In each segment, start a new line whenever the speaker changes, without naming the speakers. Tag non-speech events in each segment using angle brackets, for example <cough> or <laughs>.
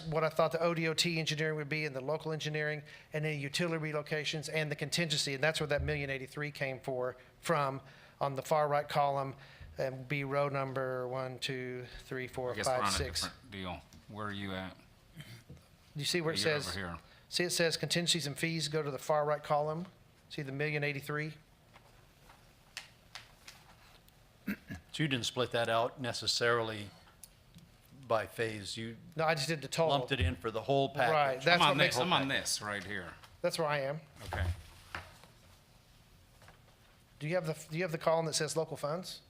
what I thought the ODOT engineering would be and the local engineering and then utility relocations and the contingency. And that's where that million eighty-three came for, from, on the far right column, and be row number one, two, three, four,
I guess we're
five,
on a
six.
different deal. Where are you at?
You see where it
You're over
says,
here.
see it says contingencies and fees, go to the far right column, see the million eighty-three?
So you didn't split that out necessarily by phase, you
No, I just did the total.
lumped it in for the whole
Right,
package?
that's
I'm
what
on
makes,
this. I'm on this right here.
that's where I am.
Okay.
Do you have the, do you have the column that says local funds?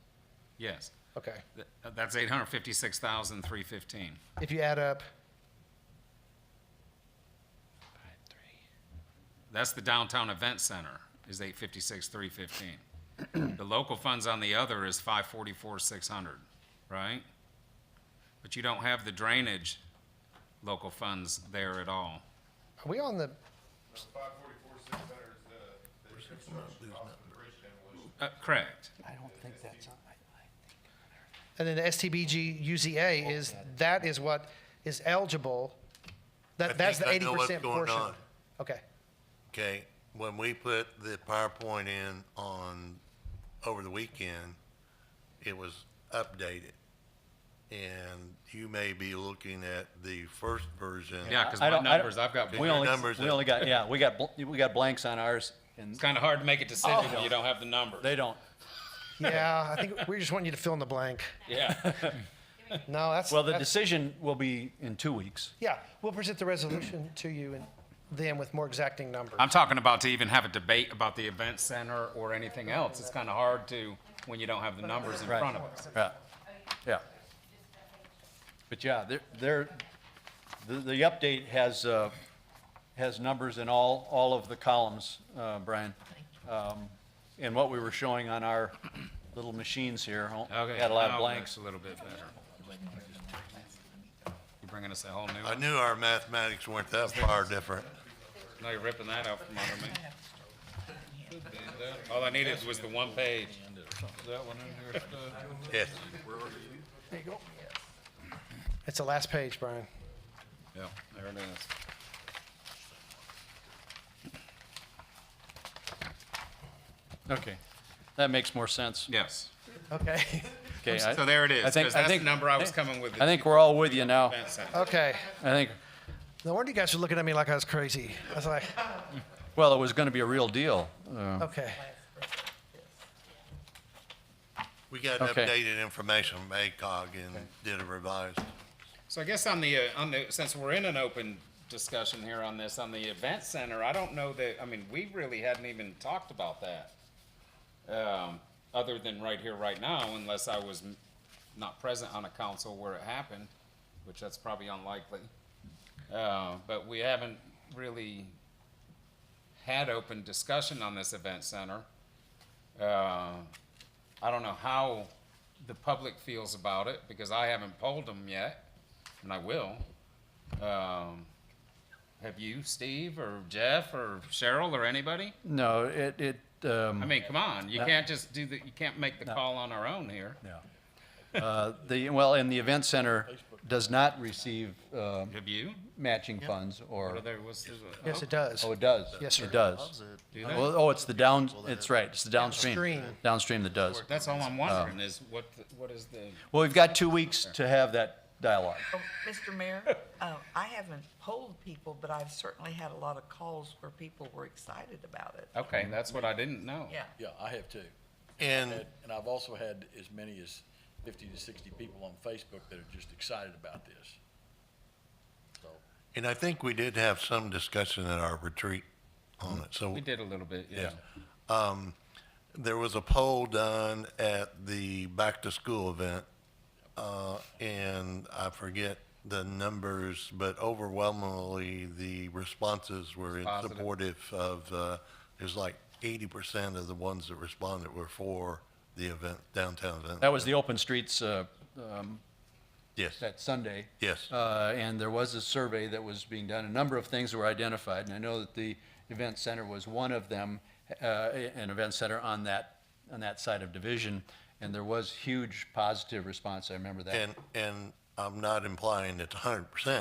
Yes.
Okay,
Th- uh, That's eight hundred fifty-six thousand three fifteen.
if you add up,
That's the downtown event center is eight fifty-six
<clears throat>
three fifteen. The local funds on the other is five forty-four six hundred, right? But you don't have the drainage local funds there at all.
are we on the,
Five forty-four, six hundred is the, the construction cost of the bridge demolition.
Uh, correct.
and then the STBG UZA is, that is what is eligible. That,
think
that's the
I
eighty
know what's
percent
going
portion.
on. <laughs>
Okay,
Okay, when we put the PowerPoint in on, over the weekend, it was updated. And you may be looking at the first version.
Yeah, because
I
my
don't- I don't-
numbers, I've got,
We
<laughs>
only,
numbers
we
are-
only got, yeah, we got, bl- we got blanks on ours, and
it's kind of hard to make a decision when you don't have the numbers.
Oh. they don't.
yeah, I think we just want you to fill in the blank.
Yeah.
No, that's,
Well, the
that's-
decision will be in two weeks.
yeah, we'll present the resolution to you and then with more exacting numbers.
I'm talking about to even have a debate about the event center or anything else. It's kind of hard to, when you don't have the numbers in front of us.
Yeah, yeah. But yeah, there, there, the, the update has, uh, has numbers in all, all of the columns, uh, Brian. Um, And what we were showing on our little machines here, oh, had a lot
now
of
it looks
blanks.
A little bit better. You're bringing us a whole new
I
one.
knew our mathematics weren't that far different.
Now you're ripping that out from under me. All I needed was the one page.
Yes,
It's the last page, Brian.
Yeah, there it is.
Okay, that makes more sense.
Yes.
Okay, <laughs>
Okay, I-
So there it is,
I think-
'cause
I
that's the
think-
number I was coming with.
I think we're all with you now.
Event center.
okay.
I think,
No wonder you guys are looking at me like I was crazy. I was like,
well, it was gonna be a real deal. uh,
okay,
we got
Okay.
updated information from ACOG and did a revised.
So I guess on the, uh, on the, since we're in an open discussion here on this, on the event center, I don't know that, I mean, we really hadn't even talked about that. Um, other than right here, right now, unless I was m- not present on a council where it happened, which that's probably unlikely. Uh, but we haven't really had open discussion on this event center. Uh, I don't know how the public feels about it because I haven't polled them yet, and I will. Um, have you, Steve, or Jeff, or Cheryl, or anybody?
No, it, it, um.
I mean, come on, you
No.
can't just do the, you can't make the call on our own here.
Yeah. Uh, The, well, and the event center does not receive uh,
Have you?
matching funds
Or
or,
there was, there's a-
yes, it
oh,
does.
oh, it does?
Yes, sir.
It does.
do they?
Oh, oh, it's the down, it's right, it's the downstream,
Downstream.
downstream that does.
That's all I'm wondering is what, the- what is the,
Well, we've got two weeks to have that dialogue.
Oh, Mr. Mayor, uh, I haven't polled people, but I've certainly had a lot of calls where people were excited about it.
okay, that's what I didn't know.
Yeah.
Yeah, I have too.
And
And, and I've also had as many as fifty to sixty people on Facebook that are just excited about this. So,
And I think we did have some discussion at our retreat on it, so.
We did a little bit, yeah.
Yeah. Um, there was a poll done at the back-to-school event, uh, and I forget the numbers, but overwhelmingly, the responses were in
Positive.
supportive of, uh, it was like eighty percent of the ones that responded were for the event, downtown event.
That was the open streets uh, um,
Yes,
that Sunday.
yes.
Uh, And there was a survey that was being done, a number of things were identified, and I know that the event center was one of them, uh, an event center on that, on that side of division, and there was huge positive response, I remember that.
And, and I'm not implying it's hundred percent,